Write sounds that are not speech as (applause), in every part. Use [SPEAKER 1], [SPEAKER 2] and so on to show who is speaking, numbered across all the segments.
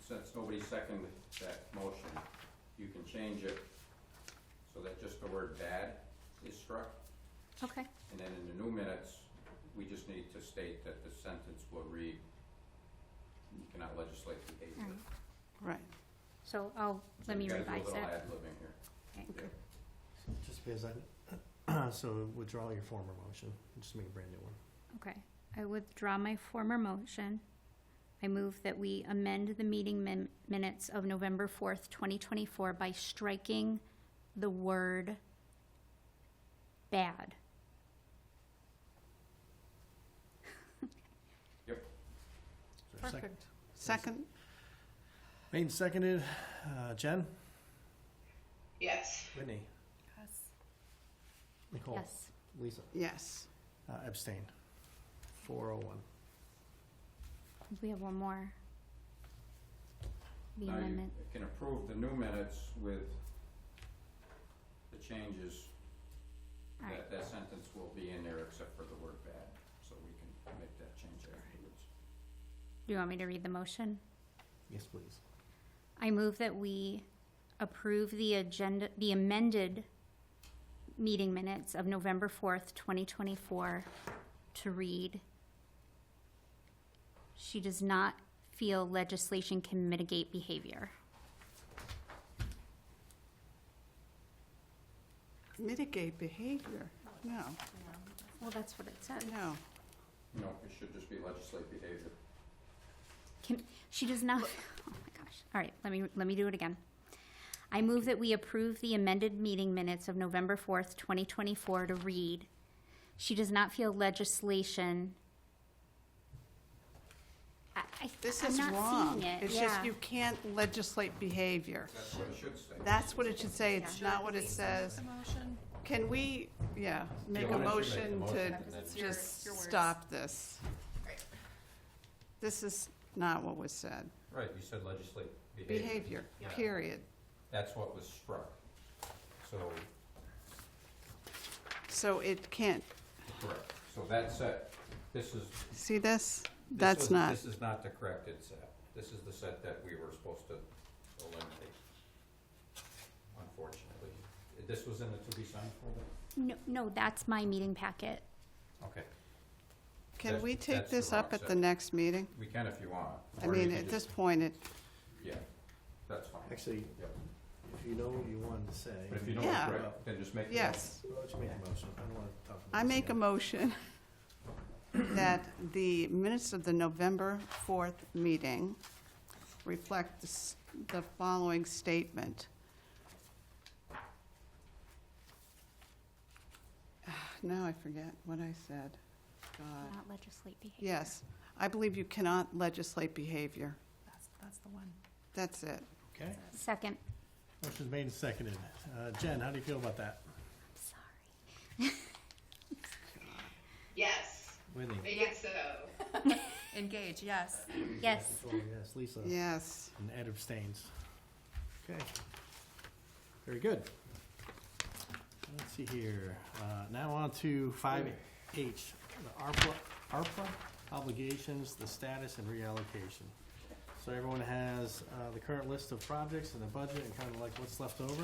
[SPEAKER 1] since nobody seconded that motion, you can change it so that just the word bad is struck.
[SPEAKER 2] Okay,
[SPEAKER 1] And then in the new minutes, we just need to state that the sentence will read, you cannot legislate behavior.
[SPEAKER 2] Alright.
[SPEAKER 3] Right.
[SPEAKER 2] so I'll, let me
[SPEAKER 1] You gotta do a
[SPEAKER 2] revise
[SPEAKER 1] little
[SPEAKER 2] that.
[SPEAKER 1] ad libbing here.
[SPEAKER 2] Okay.
[SPEAKER 4] Just because I, (clears throat) so withdraw your former motion, and just make a brand new one.
[SPEAKER 2] Okay, I withdraw my former motion. I move that we amend the meeting min- minutes of November fourth, twenty twenty-four by striking the word bad.
[SPEAKER 4] Is there a second?
[SPEAKER 3] Second,
[SPEAKER 4] Made and seconded, uh, Jen,
[SPEAKER 5] yes,
[SPEAKER 4] Whitney, Nicole,
[SPEAKER 2] Yes.
[SPEAKER 4] Lisa,
[SPEAKER 3] yes.
[SPEAKER 4] uh, abstain, four oh one.
[SPEAKER 2] We have one more. The
[SPEAKER 1] Now you
[SPEAKER 2] amendment,
[SPEAKER 1] Can approve the new minutes with the changes
[SPEAKER 2] all right,
[SPEAKER 1] that that sentence will be in there except for the word bad, so we can make that change afterwards.
[SPEAKER 2] do you want me to read the motion?
[SPEAKER 4] Yes, please.
[SPEAKER 2] I move that we approve the agenda, the amended meeting minutes of November fourth, twenty twenty-four to read. She does not feel legislation can mitigate behavior.
[SPEAKER 3] Mitigate behavior, no,
[SPEAKER 2] Well, that's what it says.
[SPEAKER 3] no.
[SPEAKER 1] No, it should just be legislate behavior.
[SPEAKER 2] Can, she does not, oh my gosh. All right, let me, let me do it again. I move that we approve the amended meeting minutes of November fourth, twenty twenty-four to read. She does not feel legislation. I, I,
[SPEAKER 3] This
[SPEAKER 2] I'm
[SPEAKER 3] is
[SPEAKER 2] not
[SPEAKER 3] wrong.
[SPEAKER 2] seeing it,
[SPEAKER 3] It's just
[SPEAKER 2] yeah.
[SPEAKER 3] you can't legislate behavior.
[SPEAKER 1] That's what it should say.
[SPEAKER 3] That's what it should say, it's
[SPEAKER 6] Should I
[SPEAKER 3] not what it
[SPEAKER 6] release
[SPEAKER 3] says.
[SPEAKER 6] The motion,
[SPEAKER 3] Can we, yeah, make a
[SPEAKER 4] why don't you
[SPEAKER 3] motion to
[SPEAKER 6] because it's your, your
[SPEAKER 3] just
[SPEAKER 6] words.
[SPEAKER 3] stop this?
[SPEAKER 6] Right.
[SPEAKER 3] This is not what was said.
[SPEAKER 1] Right, you said legislate behavior.
[SPEAKER 3] Behavior,
[SPEAKER 1] Yeah.
[SPEAKER 3] period.
[SPEAKER 1] That's what was struck. So,
[SPEAKER 3] So it can't,
[SPEAKER 1] correct. So that's it. This is. this
[SPEAKER 3] see this? That's
[SPEAKER 1] was-
[SPEAKER 3] not,
[SPEAKER 1] This is not the corrected set. This is the set that we were supposed to eliminate, unfortunately. This was in the to be signed folder?
[SPEAKER 2] No, no, that's my meeting packet.
[SPEAKER 1] Okay,
[SPEAKER 3] can
[SPEAKER 1] that's-
[SPEAKER 3] we take
[SPEAKER 1] that's the
[SPEAKER 3] this
[SPEAKER 1] wrong
[SPEAKER 3] up at the
[SPEAKER 1] set.
[SPEAKER 3] next meeting?
[SPEAKER 1] we can if you want.
[SPEAKER 3] I
[SPEAKER 1] Or you
[SPEAKER 3] mean,
[SPEAKER 1] can
[SPEAKER 3] at this
[SPEAKER 1] just-
[SPEAKER 3] point, it,
[SPEAKER 1] Yeah, that's fine.
[SPEAKER 4] Actually,
[SPEAKER 1] Yep.
[SPEAKER 4] if you know what you wanted to say.
[SPEAKER 1] But if you don't agree,
[SPEAKER 3] Yeah.
[SPEAKER 1] then just make the.
[SPEAKER 3] yes.
[SPEAKER 4] Why don't you make a motion? I don't want to talk about
[SPEAKER 3] I
[SPEAKER 4] this
[SPEAKER 3] make a
[SPEAKER 4] again.
[SPEAKER 3] motion (coughs) that the minutes of the November 4th meeting reflect the s- the following statement. (sighs) Now I forget what I said. God.
[SPEAKER 2] Not legislate behavior.
[SPEAKER 3] Yes, I believe you cannot legislate behavior.
[SPEAKER 6] That's, that's the one.
[SPEAKER 3] That's it.
[SPEAKER 4] Okay,
[SPEAKER 2] Second,
[SPEAKER 4] motion's made and seconded. Uh, Jen, how do you feel about that?
[SPEAKER 2] sorry.
[SPEAKER 5] yes,
[SPEAKER 4] Whitney?
[SPEAKER 5] I guess so,
[SPEAKER 6] (laughs) Engage, yes.
[SPEAKER 2] Yes,
[SPEAKER 4] Nicole, Yes, Lisa?
[SPEAKER 3] Yes.
[SPEAKER 4] And Ed abstains. Okay. Very good. Let's see here. Uh, Now on to five H, the ARPA, ARPA obligations, the status and reallocation. So everyone has uh, the current list of projects and the budget and kind of like what's left over.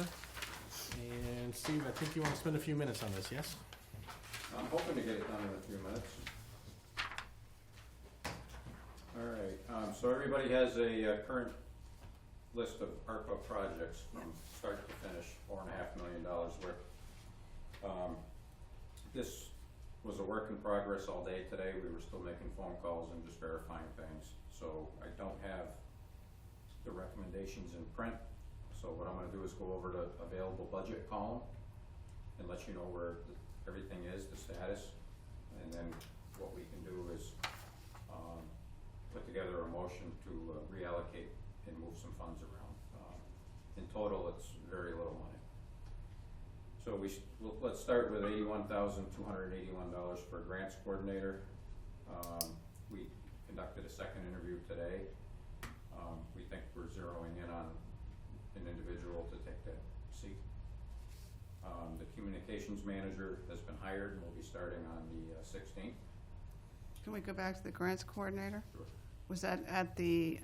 [SPEAKER 4] And Steve, I think you want to spend a few minutes on this, yes?
[SPEAKER 1] I'm hoping to get it done in a few minutes. All right, um, so everybody has a uh, current list of ARPA projects from start to finish, four and a half million dollars worth. Um, This was a work in progress all day today, we were still making phone calls and just verifying things, so I don't have the recommendations in print. So what I'm gonna do is go over to available budget column and let you know where th- everything is, the status. And then what we can do is, um, put together a motion to uh, reallocate and move some funds around. Um, In total, it's very little money. So we, s- l- let's start with eighty-one thousand, two hundred and eighty-one dollars for grants coordinator. Um, we conducted a second interview today. Um, we think we're zeroing in on an individual to take that seat. Um, the communications manager has been hired and will be starting on the uh, sixteenth.
[SPEAKER 3] Can we go back to the grants coordinator?
[SPEAKER 1] Sure.
[SPEAKER 3] Was that at the